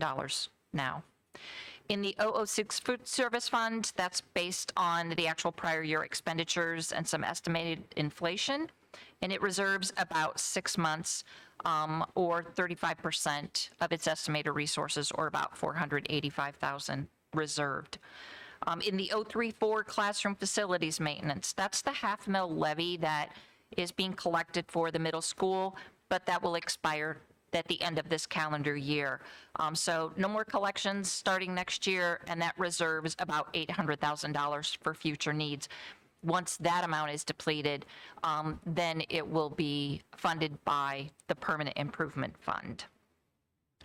dollars now. In the 006 food service fund, that's based on the actual prior year expenditures and some estimated inflation, and it reserves about six months um, or 35% of its estimated resources, or about 485,000 reserved. Um, In the 034 classroom facilities maintenance, that's the half mil levy that is being collected for the middle school, but that will expire at the end of this calendar year. Um, So no more collections starting next year, and that reserves about $800,000 for future needs. Once that amount is depleted, um, then it will be funded by the Permanent Improvement Fund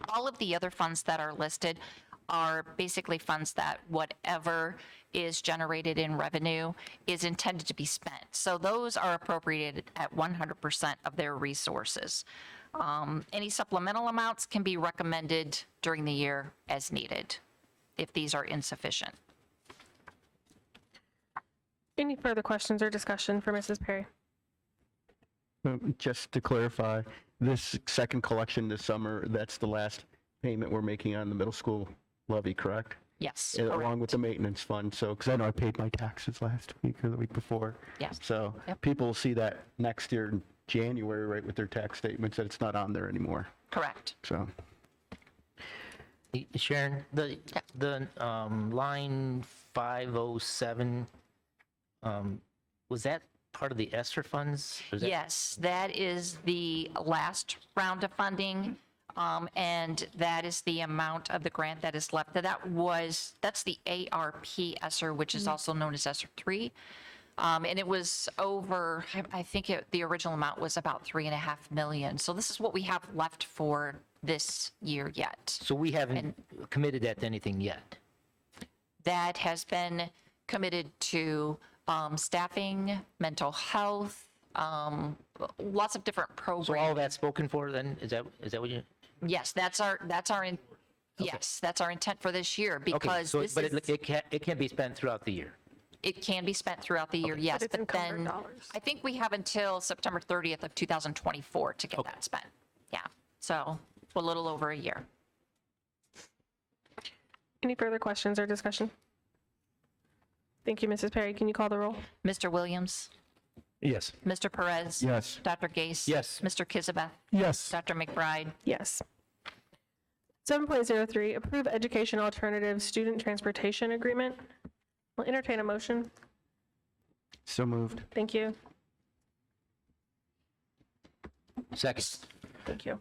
all of the other funds that are listed are basically funds that whatever is generated in revenue is intended to be spent. So those are appropriated at 100% of their resources. Um, Any supplemental amounts can be recommended during the year as needed, if these are insufficient. Any further questions or discussion for Mrs. Perry? Um, Just to clarify, this second collection this summer, that's the last payment we're making on the middle school levy, correct? Yes, And correct. Along with the maintenance fund, so, because I know I paid my taxes last week or the week before. Yes. So Yep. people will see that next year in January, right, with their tax statements, that it's not on there anymore, correct. so. Sharon, the, the um, line 507, um, was that part of the ESSER funds? Or is that- Yes, that is the last round of funding, um, and that is the amount of the grant that is left. That was, that's the ARP ESSER, which Mm-hmm. is also known as ESSER 3. Um, And it was over, I- I think it- the original amount was about 3.5 million. So this is what we have left for this year yet. So we haven't committed that to anything yet? that has been committed to um, staffing, mental health, um, lots of different So all programs. that's spoken for then? Is that, is that what you? Yes, that's our, that's our, in- yes, that's our intent for this year Okay, because so, this but it, is, it can, it can be spent throughout the year? it can be spent throughout the year, yes. it's But encumbered then, dollars. I think we have until September 30th of 2024 to get that spent. Yeah, so a little over a year. Any further questions or discussion? Thank you, Mrs. Perry. Can you call the roll? Mr. Williams? Yes. Mr. Perez? Yes. Dr. Gase? Yes. Mr. Kizabeth? Yes. Dr. McBride? Yes. 7.03, approve education alternative student transportation agreement. I'll entertain a motion. So moved. Thank you. Second. Thank you.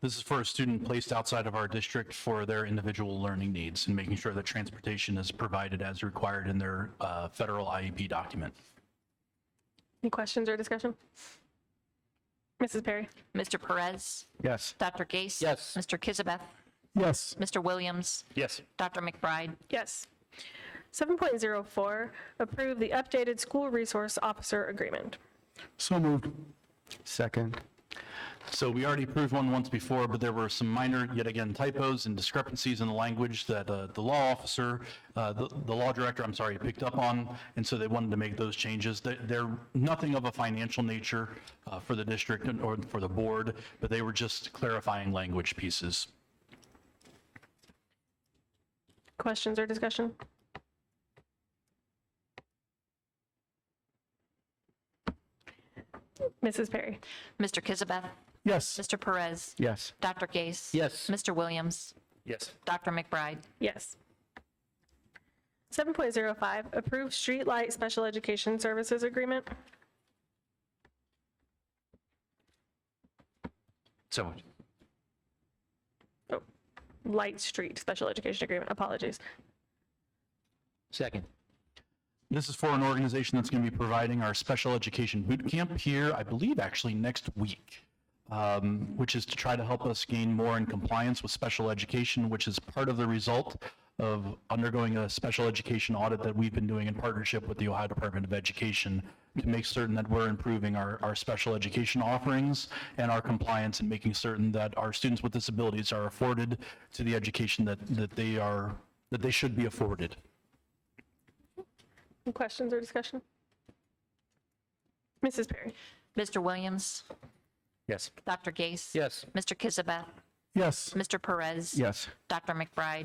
This is for a student placed outside of our district for their individual learning needs and making sure that transportation is provided as required in their uh, federal IEP document. Any questions or discussion? Mrs. Perry? Mr. Perez? Yes. Dr. Gase? Yes. Mr. Kizabeth? Yes. Mr. Williams? Yes. Dr. McBride? Yes. 7.04, approve the updated school resource officer agreement. So moved. Second. So we already approved one once before, but there were some minor, yet again, typos and discrepancies in the language that uh, the law officer, uh, the the law director, I'm sorry, picked up on, and so they wanted to make those changes. They- They're nothing of a financial nature uh, for the district and- or for the board, but they were just clarifying language pieces. Questions or discussion? Mrs. Perry? Mr. Kizabeth? Yes. Mr. Perez? Yes. Dr. Gase? Yes. Mr. Williams? Yes. Dr. McBride? Yes. 7.05, approve streetlight special education services agreement. So moved. Oh, Light street special education agreement, apologies. Second. This is for an organization that's going to be providing our special education boot camp here, I believe, actually next week, um, which is to try to help us gain more in compliance with special education, which is part of the result of undergoing a special education audit that we've been doing in partnership with the Ohio Department of Education to make certain that we're improving our, our special education offerings and our compliance and making certain that our students with disabilities are afforded to the education that, that they are, that they should be afforded. Any Questions or discussion? Mrs. Perry? Mr. Williams? Yes. Dr. Gase? Yes. Mr. Kizabeth? Yes. Mr. Perez? Yes. Dr. McBride?